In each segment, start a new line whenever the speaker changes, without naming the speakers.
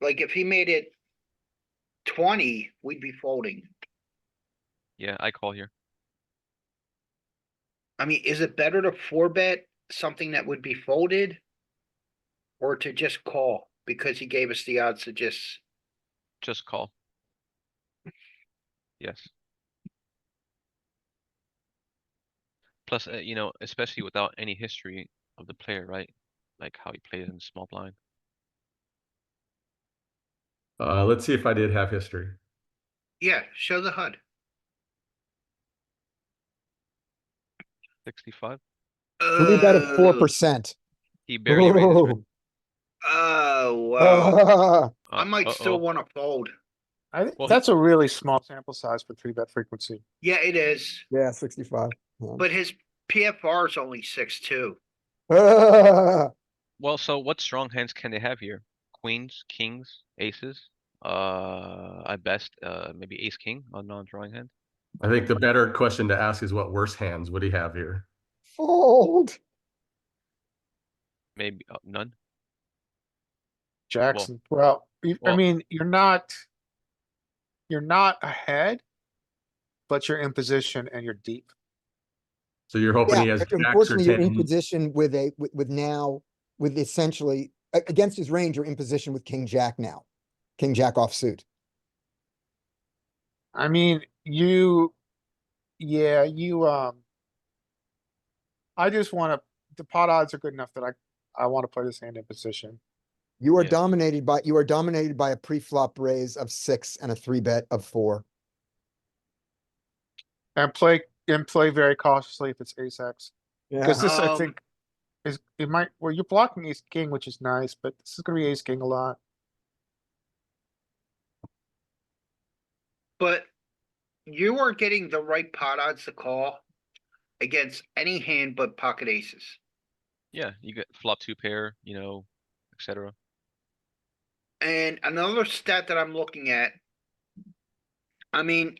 Like if he made it twenty, we'd be folding.
Yeah, I call here.
I mean, is it better to four bet something that would be folded? Or to just call because he gave us the odds to just,
Just call. Yes. Plus, uh, you know, especially without any history of the player, right? Like how he plays in small blind.
Uh, let's see if I did have history.
yeah, show the HUD.
Sixty-five.
We bet at four
Oh,
percent.
He barely. made Uh, his red-
Oh, wow.
I
I
uh,
might
uh-oh.
still wanna fold.
think
Well, he-
that's a really small sample size for three bet frequency.
Yeah, it is,
Yeah, sixty-five.
but his PFR is only six, two.
Well, so what strong hands can they have here? Queens, kings, aces? Uh, I best, uh, maybe ace, king on non-drawing hand?
I think the better question to ask is what worse hands would he have here?
Fold.
Maybe, uh, none?
Jackson, well, you- I
well-
mean, you're not. You're not ahead. But you're in position and you're deep.
So you're hoping he
Yeah,
has
but
jacks or
unfortunately, you're in
tens.
position with a, with, with now, with essentially, a- against his range, you're in position with king jack now. King jack offsuit.
I mean, you. Yeah, you, um. I just wanna, the pot odds are good enough that I, I wanna play this hand in position.
You are
Yeah.
dominated by, you are dominated by a pre-flop raise of six and a three bet of four.
And play, and play very cautiously if it's ace X.
Yeah.
Cause this, I
Um,
think, is, it might, well, you're blocking ace king, which is nice, but this is gonna be ace king a lot.
But you are getting the right pot odds to call against any hand but pocket aces.
Yeah, you get flop two pair, you know, et cetera.
And another stat that I'm looking at. I mean,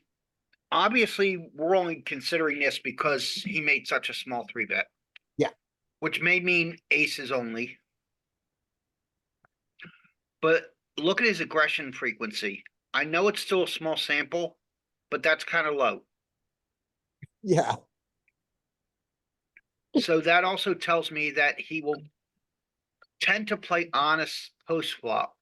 obviously, we're only considering this because he made such a small three bet.
Yeah.
Which may mean aces only. But look at his aggression frequency. I know it's still a small sample, but that's kind of low.
Yeah,
So that also tells me that he will tend to play honest post flop,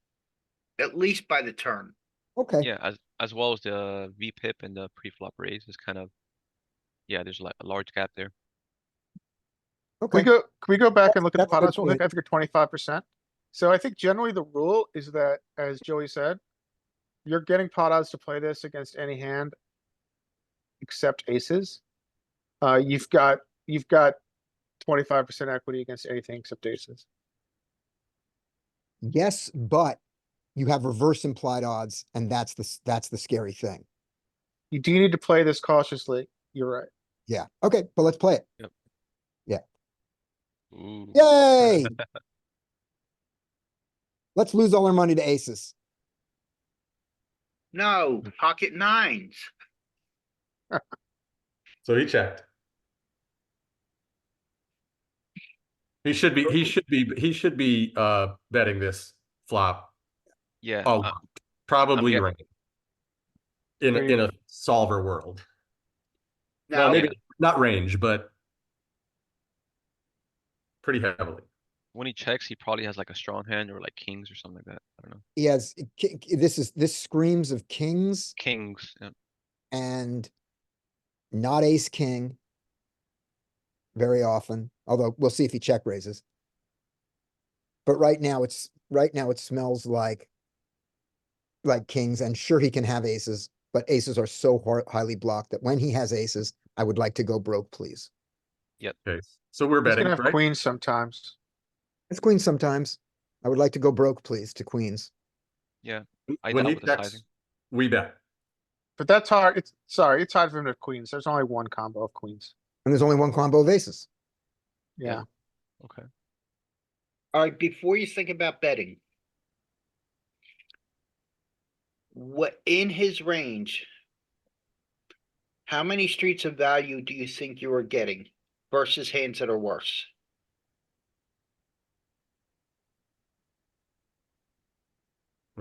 at least by the turn.
okay.
Yeah, as, as well as the V pip and the pre-flop raise is kind of, yeah, there's like a large gap there.
Can we
Okay.
go, can we go back and look at the
That's a
pot
good
odds real quick
point.
after twenty-five percent? So I think generally the rule is that, as Joey said, you're getting pot odds to play this against any hand except aces. Uh, you've got, you've got twenty-five percent equity against anything except aces.
Yes, but you have reverse implied odds and that's the, s- that's the scary thing.
You do need to play this cautiously. You're right.
Yeah, okay, but let's play it.
Ooh.
Yay! Let's lose all our money to aces.
No, pocket nines.
So he checked. He should be, he should be, he should be, uh, betting this flop.
Yeah,
Oh,
uh,
probably
guessing.
right. In, a-
Range.
in a solver world. Well,
No,
maybe not range, but pretty heavily.
when he checks, he probably has like a strong hand or like kings or something like that. I don't know.
He has, ki- ki- this is, this screams of kings
Kings, yeah.
and not ace king very often, although we'll see if he check raises. But right now it's, right now it smells like like kings and sure he can have aces, but aces are so hard, highly blocked that when he has aces, I would like to go broke, please.
Okay, so we're
He's
betting,
gonna have
right?
queens sometimes.
It's queens sometimes. I would like to go broke, please, to queens.
I
When
doubt
he
with the
checks,
sizing.
we bet.
But that's hard, it's, sorry, it's hard for him to have queens. There's only one combo of queens.
And there's only one combo of aces.
Yeah.
Okay.
alright, before you think about betting. What, in his range? How many streets of value do you think you are getting versus hands that are worse?